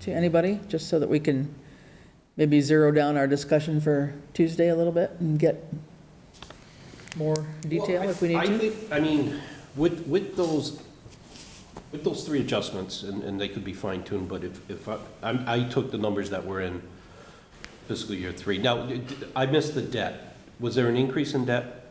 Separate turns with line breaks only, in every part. to anybody, just so that we can maybe zero down our discussion for Tuesday a little bit and get more detail
Well, I-
if we
I
need to?
think, I mean, with, with those, with those three adjustments, and, and they could be fine tuned, but if, if I, I'm- I took the numbers that were in fiscal year three. Now, d- d- I missed the debt. Was there an increase in debt?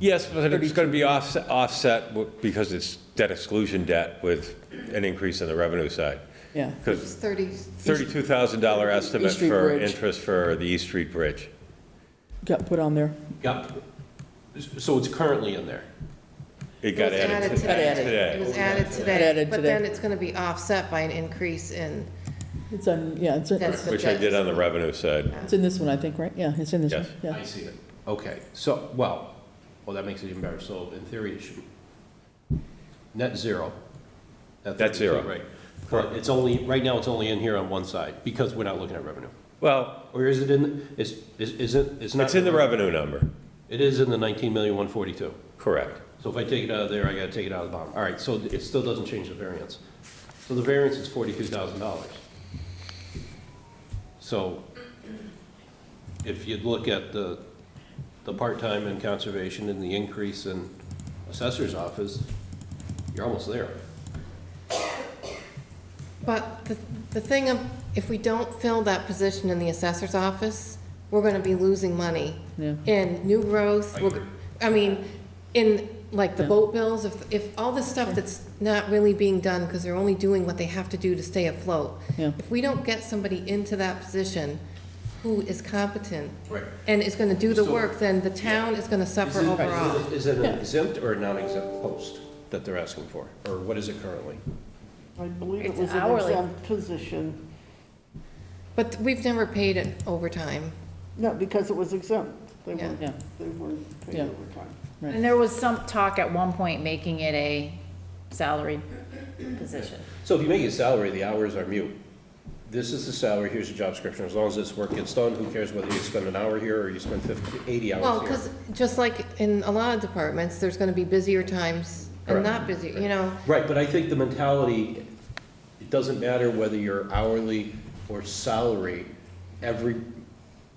Yes, but it's going to be offset, offset w- because it's debt exclusion debt with an increase in the revenue side.
Yeah,
Because
Thirty,
$32,000 estimate
East Street
for
Bridge.
interest for the East Street Bridge.
got put on there.
Yep. So it's currently in there.
It
it
got
was
added
added
to-
today.
added.
It
today.
was added
It
today,
added
but
today.
then it's gonna be offset by an increase in,
It's on, yeah, it's in,
That's-
it's
the
Which I
debt.
did on the revenue side.
in this one, I think, right? Yeah, it's in this one,
Yes.
yeah.
I see it. Okay, so, well, well, that makes it even better. So in theory, it should, net zero. That
Net zero.
32, Right. But it's only, right now, it's only in here on one side, because we're not looking at revenue.
Well,
Or is it in, is, is is it, it's not?
it's in the revenue number,
It is in the nineteen million, one forty-two.
correct.
So if I take it out of there, I gotta take it out of the bottom. All right, so it still doesn't change the variance. So the variance is forty-two thousand dollars. So if you look at the, the part-time in conservation and the increase in assessor's office, you're almost there.
but the, the thing of, if we don't fill that position in the assessor's office, we're gonna be losing money.
Yeah.
In new growth,
I
we're,
agree.
I mean, in, like, the
Yeah.
boat bills, if, if all this stuff that's not really being done, because they're only doing what they have to do to stay afloat.
Yeah.
If we don't get somebody into that position who is competent
Right.
and is gonna do the
So-
work, then the town is gonna suffer overall.
Is it an exempt or a non-exempt post that they're asking for? Or what is it currently?
I believe it
It's
was an
hourly.
exempt position.
But we've never paid it overtime.
No, because it was exempt. They
Yeah.
weren't,
Yeah,
they weren't paid
Yeah.
overtime.
Right.
And there was some talk at one point making it a salaried position.
So if you make it salary, the hours are mute. This is the salary, here's the job description, as long as this work gets done, who cares whether you spend an hour here or you spend 50, 80 hours here?
Well, because just like in a lot of departments, there's gonna be busier times and
Correct.
not busy, you know?
Right, but I think the mentality, it doesn't matter whether you're hourly or salary, every,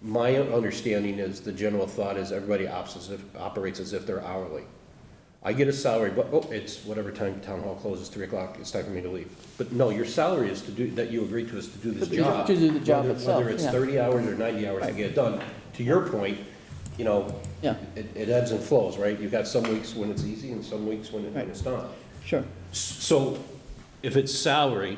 my understanding is, the general thought is everybody opts as if- operates as if they're hourly. I get a salary, but, oh, it's whatever time town hall closes, 3 o'clock, it's time for me to leave. But no, your salary is to do, that you agreed to is to do this
To do-
job.
to do the job
whether-
itself,
Whether it's
yeah.
30 hours or 90 hours to get it done. To your point, you know,
Yeah.
it it ebbs and flows, right? You've got some weeks when it's easy and some weeks when it- when it's not.
sure.
So if it's salary,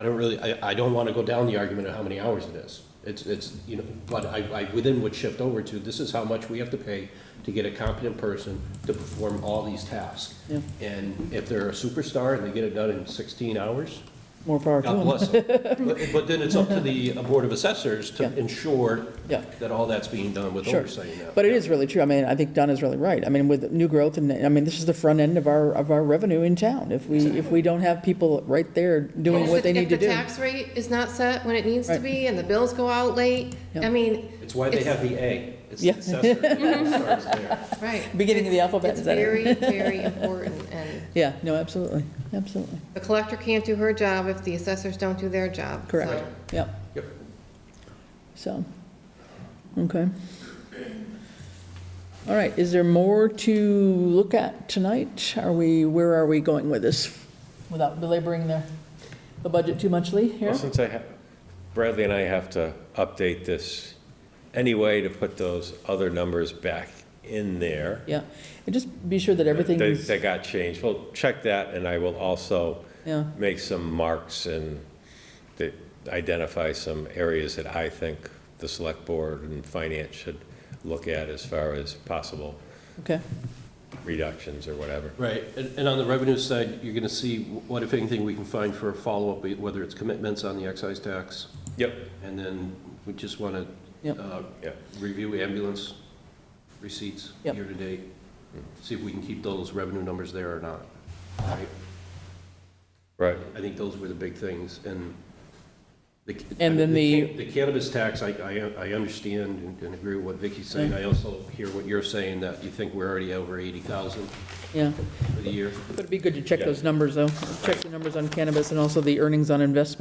I don't really, I, I don't want to go down the argument of how many hours it is. It's, it's, you know, but I, I within would shift over to, this is how much we have to pay to get a competent person to perform all these tasks.
Yeah.
And if they're a superstar and they get it done in sixteen hours,
More power to
God
them.
bless them. But, but then it's up to the uh, Board of Assessors
Yeah.
to ensure
Yeah.
that all that's being done with
Sure.
oversight now.
But it is really true. I mean, I think Donna's really right. I mean, with new growth and, I mean, this is the front end of our, of our revenue in town. If we, if we don't have people right there doing
If
what
the-
they need to do.
If the tax rate is not set when it needs to
Right.
be and the bills go out late,
Yeah.
I mean.
It's why they
it's-
have the A. It's the
Yeah.
assessor. It starts there.
Right.
Beginning of the alphabet,
It's
is that it?
very, very important and
Yeah, no, absolutely, absolutely.
the collector can't do her job if the assessors don't do their job.
Correct.
so-
Yep,
Yep.
so, okay. All right, is there more to look at tonight? Are we, where are we going with this? Without belaboring the, the budget too much, Lee, here?
Well, since I have, Bradley and I have to update this anyway to put those other numbers back in there.
Yeah, and just be sure that everything
They-
is,
They got changed. Well, check that, and I will also
yeah,
make some marks and that identify some areas that I think the select board and finance should look at as far as possible
okay,
reductions or whatever.
Right, and, and on the revenue side, you're gonna see what, if anything, we can find for a follow-up, whether it's commitments on the excise tax,
Yep.
and then we just wanna,
Yep.
uh,
Yep.
review ambulance receipts
Yep.
year-to-date, see if we can keep those revenue numbers there or not. Right.
Right.
I think those were the big things, and the.
And then the-
The cannabis tax, I, I, I understand and- and agree with what Vicky's saying, I also hear what you're saying, that you think we're already over eighty thousand
yeah.
for the year.
But it'd be good to check those numbers, though, check the numbers on cannabis and also the earnings on investment.